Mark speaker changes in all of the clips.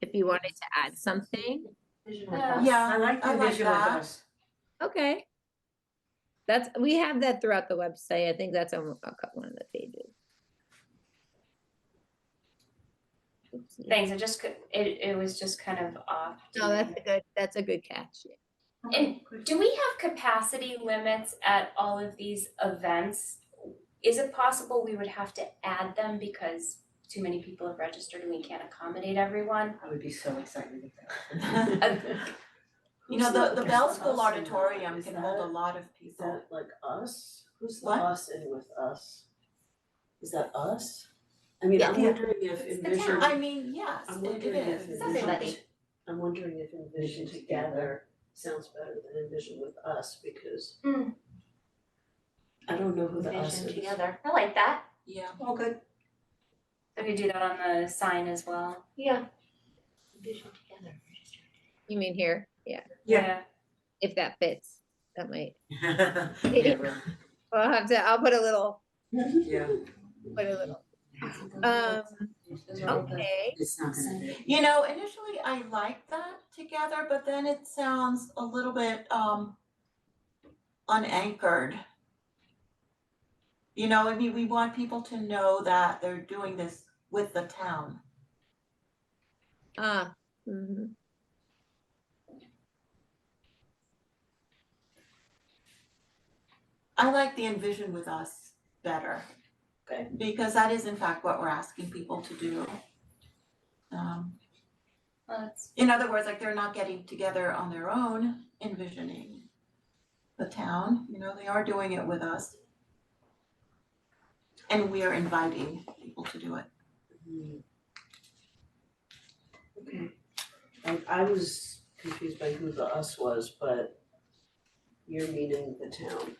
Speaker 1: if you wanted to add something.
Speaker 2: Vision with
Speaker 3: Yeah.
Speaker 2: us.
Speaker 4: Yeah,
Speaker 2: I like
Speaker 4: I
Speaker 2: the
Speaker 4: like
Speaker 2: vision with
Speaker 4: that.
Speaker 2: us.
Speaker 1: Okay. That's, we have that throughout the website. I think that's on a couple of the pages. Oopsie.
Speaker 3: Thanks, I just, cou- it, it was just kind of off.
Speaker 1: No, that's a good, that's a good catch.
Speaker 4: Eh.
Speaker 3: And do we have capacity limits at all of these events? Is it possible we would have to add them because too many people have registered and we can't accommodate everyone?
Speaker 2: I would be so excited if that.
Speaker 4: You know, the, the Bell
Speaker 2: Bell
Speaker 4: School Auditorium can hold a lot of
Speaker 5: Is
Speaker 4: people.
Speaker 5: that like us? Who's the
Speaker 4: What?
Speaker 5: us and with us? Is that us? I mean, I'm
Speaker 4: Yeah.
Speaker 5: wondering if
Speaker 3: It's the
Speaker 5: envision,
Speaker 4: I mean, yes,
Speaker 5: I'm
Speaker 4: it
Speaker 5: wondering if
Speaker 4: is.
Speaker 5: envision,
Speaker 3: Everybody.
Speaker 5: I'm wondering if envision together sounds better than envision with us because
Speaker 3: Hmm.
Speaker 5: I don't know who the us is.
Speaker 2: together.
Speaker 3: I like that.
Speaker 4: Yeah,
Speaker 2: Oh, good.
Speaker 3: So we do that on the sign as well.
Speaker 2: Yeah. Vision together.
Speaker 1: You mean here? Yeah,
Speaker 2: Yeah.
Speaker 1: if that fits, that might.
Speaker 2: Yeah, well,
Speaker 1: Well, I'll have to, I'll put a little,
Speaker 5: Mm-hmm.
Speaker 2: yeah,
Speaker 1: put a little, um,
Speaker 3: Those are all the-
Speaker 1: okay.
Speaker 2: it's not gonna be.
Speaker 4: you know, initially I liked that together, but then it sounds a little bit, um, unanchored. You know, I mean, we want people to know that they're doing this with the town.
Speaker 1: Ah, mhm.
Speaker 4: I like the envision with us better.
Speaker 5: Okay.
Speaker 4: Because that is in fact what we're asking people to do. Um,
Speaker 3: Well, that's-
Speaker 4: in other words, like they're not getting together on their own, envisioning the town, you know, they are doing it with us. And we are inviting people to do it.
Speaker 5: Hmm. Okay. I I was confused by who the us was, but you're meaning the town.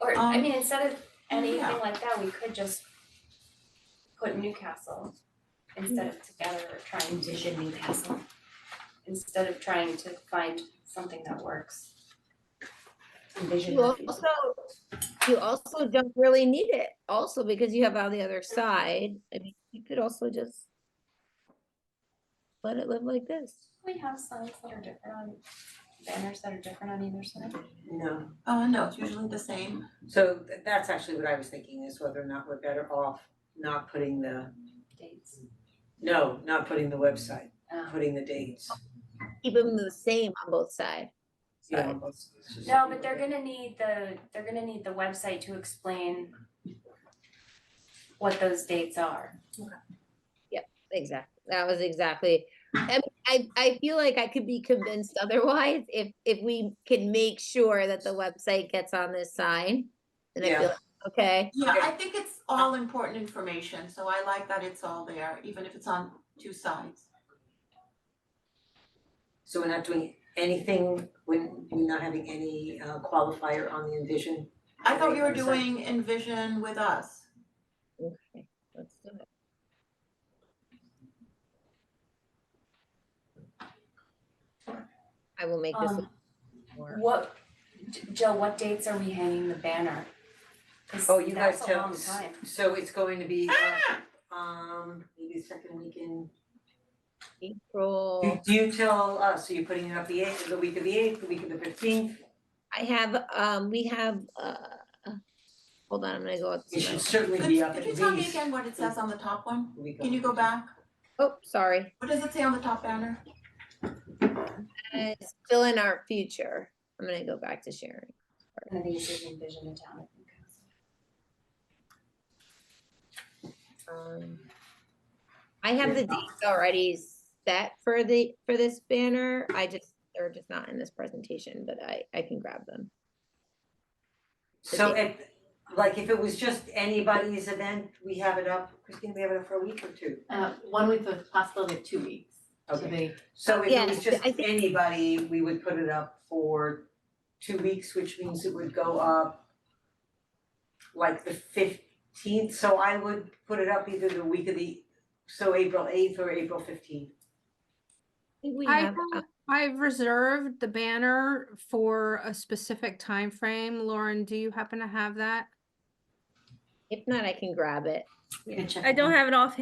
Speaker 3: Or, I
Speaker 4: Um,
Speaker 3: mean, instead of
Speaker 4: yeah.
Speaker 3: anything like that, we could just put Newcastle instead of together or trying to.
Speaker 2: Vision Newcastle.
Speaker 3: instead of trying to find something that works.
Speaker 2: Envision
Speaker 1: You
Speaker 2: Newcastle.
Speaker 1: also, you also don't really need it also because you have on the other side. I mean, you could also just let it live like this.
Speaker 3: We have signs that are different on, banners that are different on either side.
Speaker 2: No,
Speaker 4: Uh, no, it's usually the same.
Speaker 6: So th- that's actually what I was thinking is whether or not we're better off not putting the,
Speaker 3: Dates.
Speaker 6: no, not putting the website,
Speaker 3: Um,
Speaker 6: putting the dates.
Speaker 1: Keep them the same on both sides.
Speaker 6: Yeah,
Speaker 1: Right.
Speaker 6: let's- let's just-
Speaker 3: No, but they're gonna need the, they're gonna need the website to explain what those dates are.
Speaker 1: Exactly. That was exactly. I, mean, I I feel like I could be convinced otherwise if if we can make sure that the website gets on this sign. Then I
Speaker 6: Yeah.
Speaker 1: feel like, okay.
Speaker 4: Yeah,
Speaker 6: Okay.
Speaker 4: I think it's all important information, so I like that it's all there, even if it's on two sides.
Speaker 6: So we're not doing anything, we're, we're not having any uh, qualifier on the envision?
Speaker 4: I thought you were
Speaker 6: Website.
Speaker 4: doing envision with us.
Speaker 1: Okay. Let's do it. I will make this
Speaker 3: Um,
Speaker 1: more.
Speaker 3: What, J- Jill, what dates are we hanging the banner? 'Cause
Speaker 6: Oh, you guys
Speaker 3: that's a
Speaker 6: tell
Speaker 3: long
Speaker 6: us.
Speaker 3: time.
Speaker 6: So it's going to be, uh, um, maybe second weekend.
Speaker 1: April.
Speaker 6: Do you tell us, so you're putting it up the eighth, the week of the eighth, the week of the fifteenth?
Speaker 1: I have um we have uh hold on, I'm gonna go up
Speaker 6: It
Speaker 1: to
Speaker 6: should certainly
Speaker 4: Could,
Speaker 6: be up at
Speaker 4: could you
Speaker 6: least.
Speaker 4: tell me again what it says on the top one?
Speaker 6: the week of-
Speaker 4: Can you go back?
Speaker 1: Oh, sorry.
Speaker 4: What does it say on the top banner?
Speaker 1: Uh, it's Still in our future. I'm gonna go back to sharing.
Speaker 3: And I think it's just envision a town. of Newcastle.
Speaker 1: Um, I have the dates already set for the, for this banner. I just, they're just not in this presentation, but I, I can grab them.
Speaker 6: So if, like, if it was just anybody's event, we have it up, Christine, we have it up for a week or two.
Speaker 7: Uh, one week with possibility of two weeks, to
Speaker 6: Okay.
Speaker 7: be,
Speaker 6: So if
Speaker 1: Yeah,
Speaker 6: it was just
Speaker 1: I think-
Speaker 6: anybody, we would put it up for two weeks, which means it would go up like the fifteenth, so I would put it up either the week of the, so April eighth or April fifteenth.
Speaker 1: I think we
Speaker 8: I
Speaker 1: have,
Speaker 8: don't-
Speaker 1: uh,
Speaker 8: I've reserved the banner for a specific time frame. Lauren, do you happen to have that?
Speaker 1: If not, I can grab it.
Speaker 2: You can check
Speaker 9: I
Speaker 2: it out.
Speaker 9: don't have it offhand.